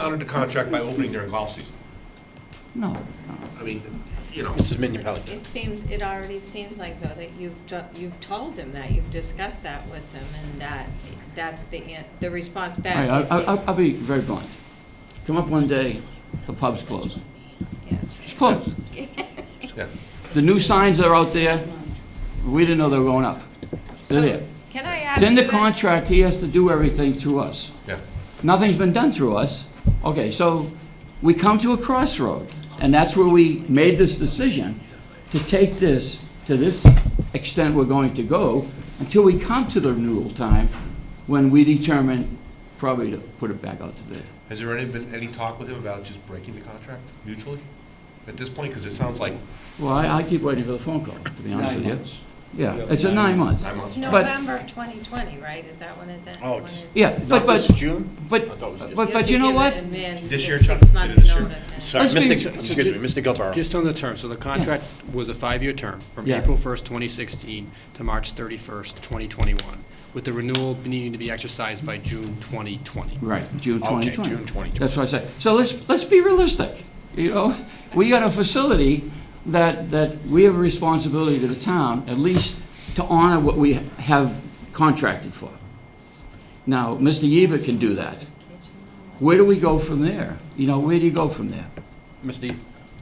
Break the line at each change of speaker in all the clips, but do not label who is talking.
honored the contract by opening during golf season.
No, no.
I mean, you know,
Mrs. Minion Pelletier.
It seems, it already seems like though that you've, to- you've told him that, you've discussed that with him and that, that's the, an- the response
All right,
back
I-
is
I- I'll,
yes.
I'll be very blunt. Come up one day, the pub's closed.
Yes.
It's closed.
yeah.
The new signs that are out there, we didn't know they were going up. They're there.
Can I ask?
Then the
you a-
contract, he has to do everything through us.
yeah.
Nothing's been done through us. Okay, so we come to a crossroad, and that's where we made this decision to take this to this extent we're going to go until we come to the renewal time when we determine probably to put it back out to bid.
Has there any, been any talk with him about just breaking the contract mutually at this point? Because it sounds like
Well, I, I keep waiting for the phone call, to be honest with you. Yeah, it's a
nine
nine months.
nine months.
No. but-
November twenty twenty, right? Is that when it, then?
Oh, it's-
Yeah, but,
Not this
but,
June? I
but,
thought it was
but,
just-
but you know what?
This
This
year,
year,
Chuck?
six
Did it
months
this year?
notice.
Sorry,
Let's be-
Mr. Excuse me, Mr. Gilberto.
Just on the term, so the contract was a five-year term, from
Yeah.
April 1st, 2016 to March 31st, 2021, with the renewal needing to be exercised by June 2020.
Right, June
Okay,
2020.
June 2020.
That's what I said. So let's, let's be realistic, you know? We got a facility that, that we have a responsibility to the town, at least to honor what we have contracted for. Now, Mr. Yever can do that. Where do we go from there? You know, where do you go from there?
Mr.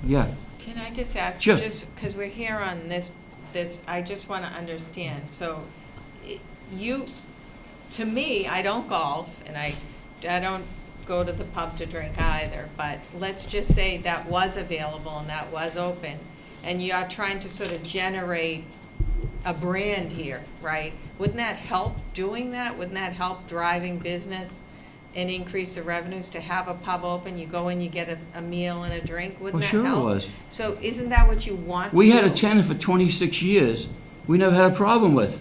Yeah,
Can I just ask,
Sure.
just, because we're here on this, this, I just want to understand, so i- you, to me, I don't golf, and I, I don't go to the pub to drink either, but let's just say that was available and that was open, and you are trying to sort of generate a brand here, right? Wouldn't that help doing that? Wouldn't that help driving business and increase the revenues to have a pub open? You go in, you get a, a meal and a drink, wouldn't
Well,
that
sure it
help?
was.
So isn't that what you want to
we had a
do?
tenant for 26 years, we never had a problem with.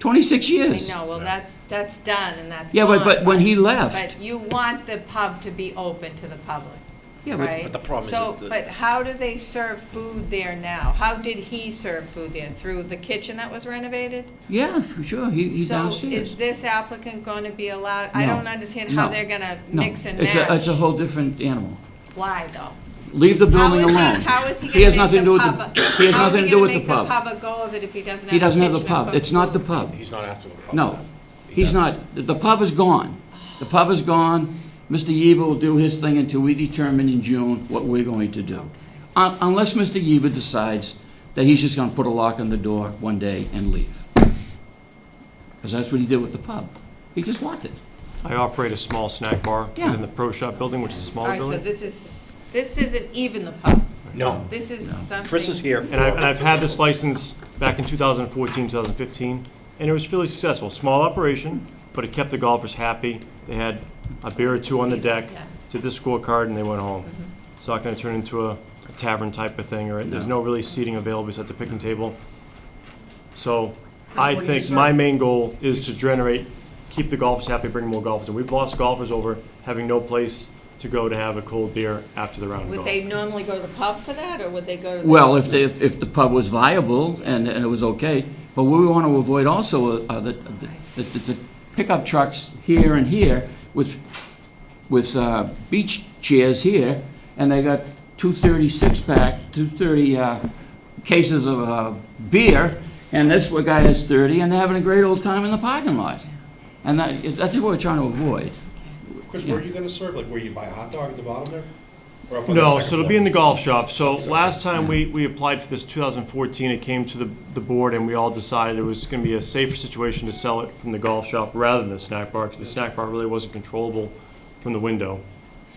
26
I
years.
know, well, that's, that's done and that's
Yeah, but,
gone,
but when he left,
But you want the pub to be open to the public,
Yeah, but-
right?
But the problem is
So,
that the-
but how do they serve food there now? How did he serve food there? Through the kitchen that was renovated?
yeah, for sure, he, he's downstairs.
So is this applicant going to be allowed, I
No.
don't understand how
No.
they're going to
No,
mix and
it's a- It's a
match.
whole different animal.
Why, though?
Leave the
How
building
is he,
alone.
how is he
He
going
has
to make
nothing to do
the
with
pub?
the, he has nothing to do with the
How is he going to make
pub.
the pub a go of it if he doesn't have a kitchen?
He doesn't have a
and
pub.
cook
It's not
food?
the pub.
He's not asking about the pub.
No. He's not, the pub is gone. The pub is gone. Mr. Yever will do his thing until we determine in June what we're going to do. Un- Unless Mr. Yever decides that he's just gonna put a lock on the door one day and leave. Because that's what he did with the pub. He just locked it.
I operate a small snack bar
Yeah.
within the Pro Shop building, which is a
All
smaller
right, so
building.
this is, this isn't even the pub.
No.
This is something.
Chris is here for.
And I- and I've had this license back in 2014, 2015, and it was fairly successful. Small operation, but it kept the golfers happy. They had a beer or two on the deck,
Yeah.
did the scorecard, and they went home. It's not going to turn into a a tavern type of thing, or there's no really seating available besides a picnic table. So I think my main goal is to generate, keep the golfers happy, bring more golfers. And we've lost golfers over having no place to go to have a cold beer after the round of golf.
Would they normally go to the pub for that, or would they go to? the-
Well, if, they- if, if the pub was viable and, and it was okay, but what we want to avoid also are the, the, the the pickup trucks here and here with, with uh, beach chairs here, and they got two thirty six-pack, two thirty uh, cases of uh, beer, and this one guy has thirty, and they're having a great old time in the parking lot. And that, that's what we're trying to avoid.
Chris, where are you gonna serve? Like where you buy a hot dog at the bottom there? Or up on the
No,
second
so it'll be in the
floor?
golf shop. So last time we, we applied for this 2014, it came to the, the board and we all decided it was gonna be a safer situation to sell it from the golf shop rather than the snack bar, because the snack bar really wasn't controllable from the window.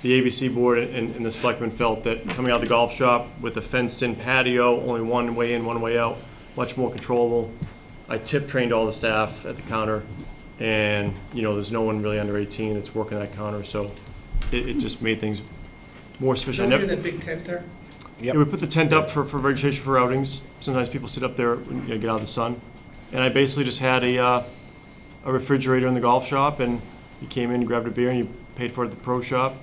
The ABC board and, and the selectmen felt that coming out of the golf shop with a fenced-in patio, only one way in, one way out, much more controllable. I tip trained all the staff at the counter and, you know, there's no one really under 18 that's working that counter, so it, it just made things more
Show
sufficient. I
me
never-
that big tent there?
Yep.
yeah, we put the tent up for, for vegetation for outings. Sometimes people sit up there and you know, get out of the sun. And I basically just had a, uh, a refrigerator in the golf shop and you came in, you grabbed a beer and you paid for it at the pro shop.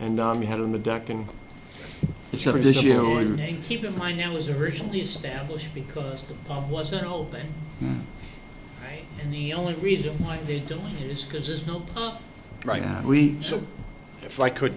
And, um, you had it on the deck and
Except
Pretty
this year,
simple.
we
And, and keep in mind, that was originally established because the pub wasn't open, right? And the only reason why they're doing it is because there's no pub.
Right.
yeah, we,
So, if I could,